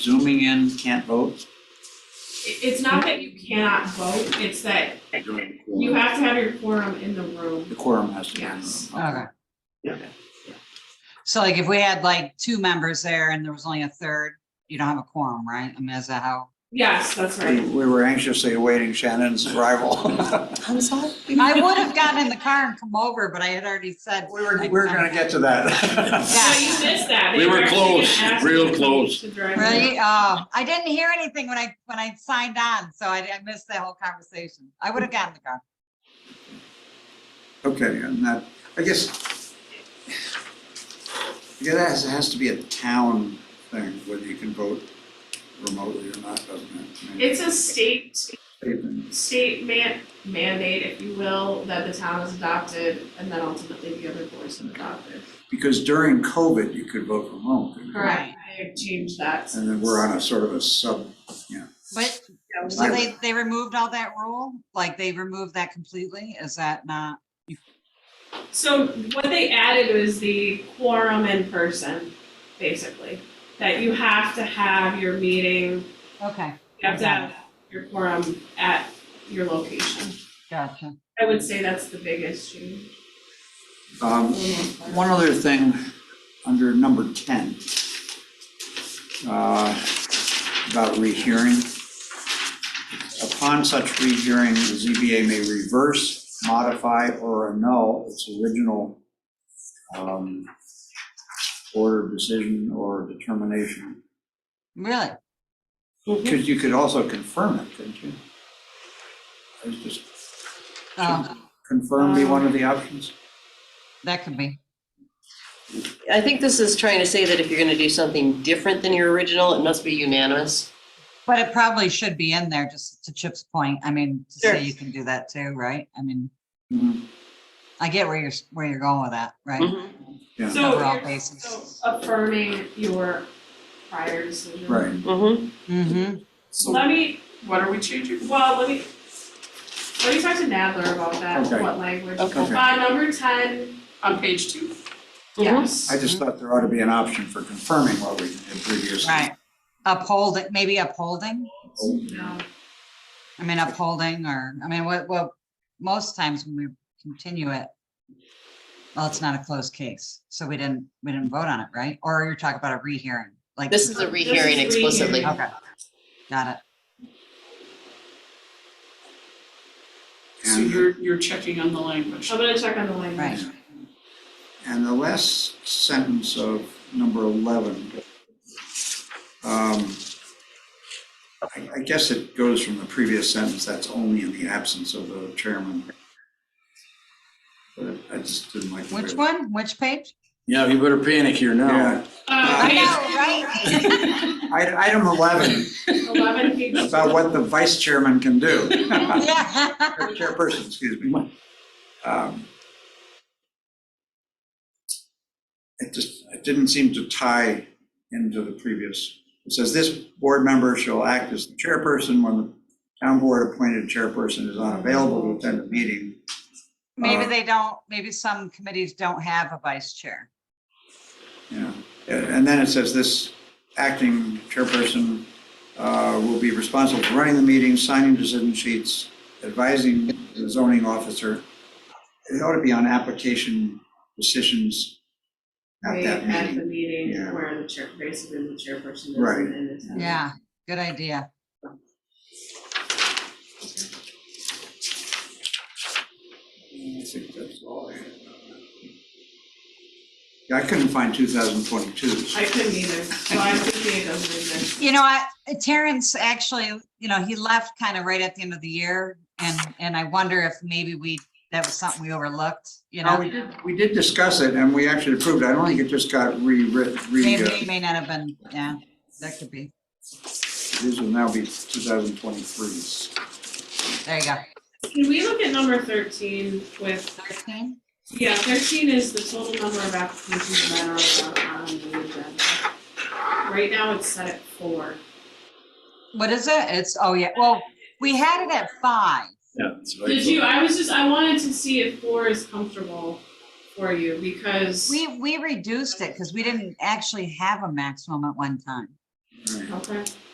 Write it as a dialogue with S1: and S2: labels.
S1: zooming in can't vote?
S2: It, it's not that you cannot vote, it's that you have to have your quorum in the room.
S1: The quorum has to be. in the room.
S2: Yes.
S3: Okay.
S1: Yeah.
S3: So like if we had like two members there and there was only a third, you don't have a quorum, right? I mean, is that how?
S2: Yes, that's
S1: We
S2: right.
S1: we were anxiously awaiting Shannon's arrival.
S4: I'm sorry?
S3: I would have gotten in the car and come over, but I had already said.
S1: We were, we were gonna get to that.
S3: Yeah.
S2: No, you missed that.
S5: We
S2: They
S5: were
S2: actually gonna
S5: close,
S2: ask you
S5: real
S2: to
S5: close.
S2: to drive in.
S3: Right? Oh, I didn't hear anything when I, when I signed on, so I I missed that whole conversation. I would have gotten in the car.
S1: Okay, and that, I guess, I guess it has, it has to be a town thing, whether you can vote remotely or not, doesn't it? I mean,
S2: It's a state,
S1: statement.
S2: state man, mandate, if you will, that the town has adopted, and then ultimately the other boards have adopted.
S1: Because during COVID, you could vote remote. couldn't you?
S2: Correct, I have changed that.
S1: And then we're on a sort of a sub,
S3: But,
S2: Yeah,
S3: so
S2: we-
S3: they, they removed all that rule? Like they removed that completely? Is that not?
S2: So what they added was the quorum in person, basically, that you have to have your meeting,
S3: Okay,
S2: you have to have your quorum at your location.
S3: gotcha.
S2: I would say that's the biggest change.
S1: um, One other thing, under number ten, uh, about rehearing. Upon such rehearing, the ZBA may reverse, modify, or annul its original um, order, decision, or determination.
S3: Really?
S1: Because you could also confirm it, couldn't you? I was just,
S3: Oh,
S1: confirm be one of the options?
S3: that could be.
S4: I think this is trying to say that if you're gonna do something different than your original, it must be unanimous.
S3: But it probably should be in there, just to Chip's point. I mean, to
S4: Sure.
S3: say you can do that too, right? I mean,
S1: Mhm.
S3: I get where you're, where you're going with that,
S2: Mm-hmm.
S3: right?
S4: Mhm.
S1: Yeah,
S2: So
S3: Overall
S2: you're-
S3: basis.
S2: so affirming your prior decision.
S1: right.
S4: Mhm.
S3: Mm-hmm.
S2: So let me, what are we changing? Well, let me, let me talk to Nadler about that,
S1: Okay.
S2: what language.
S4: Okay.
S1: Okay.
S2: Uh, number ten. On page two? Yes.
S1: I just
S3: Mm-hmm.
S1: thought there ought to be an option for confirming what we did previously.
S3: Right. Upholding, maybe upholding?
S2: No,
S3: I mean, upholding or, I mean, what, what, most times when we continue it, well, it's not a closed case, so we didn't, we didn't vote on it, right? Or you're talking about a rehearing, like,
S4: This is a rehearing
S2: This is rehearing.
S4: explicitly.
S3: okay. Got it.
S6: So
S1: And-
S6: you're, you're checking on the language.
S2: I'm gonna check on the language.
S3: Right.
S1: And the last sentence of number 11. um, I I guess it goes from the previous sentence, that's only in the absence of the chairman. But I just didn't like. the way-
S3: Which one? Which page?
S5: Yeah, you better panic here
S1: Yeah,
S2: Uh,
S3: I
S2: page
S3: know, right?
S1: I- item 11,
S2: eleven, page
S1: about what the vice chairman can do.
S3: Yeah.
S1: Or Chairperson, excuse me. Um, It just, it didn't seem to tie into the previous. It says this board member shall act as the chairperson when the town board appointed chairperson is unavailable to attend a meeting.
S3: Maybe
S1: Uh,
S3: they don't, maybe some committees don't have a vice chair.
S1: Yeah, and then it says this acting chairperson uh, will be responsible for running the meeting, signing decision sheets, advising the zoning officer. It ought to be on application decisions at
S2: Right
S1: that
S2: at the
S1: meeting.
S2: meeting
S1: Yeah.
S2: where the chair, basically the chairperson is
S1: Right.
S2: in the town.
S3: Yeah, good idea.
S1: I think that's all I had. Yeah, I couldn't find 2022.
S2: I couldn't either, so I'm thinking it doesn't exist.
S3: You know, I, Terrence actually, you know, he left kind of right at the end of the year and, and I wonder if maybe we, that was something we overlooked, you
S1: Now,
S3: know?
S1: we did, we did discuss it and we actually approved it. I don't think it just got rewritten, re,
S3: Maybe,
S1: uh,
S3: it may not have been, yeah, that could be.
S1: this will now be 2023.
S3: There you go.
S2: Can we look at number thirteen with,
S3: Thirteen?
S2: yeah, thirteen is the total number of applications that are on the agenda. Right now it's set at four.
S3: What is it? It's, oh yeah, well, we had it at five.
S2: Did you, I was just, I wanted to see if four is comfortable for you because,
S3: We, we reduced it because we didn't actually have a maximum at one time.
S1: All right.
S2: Okay.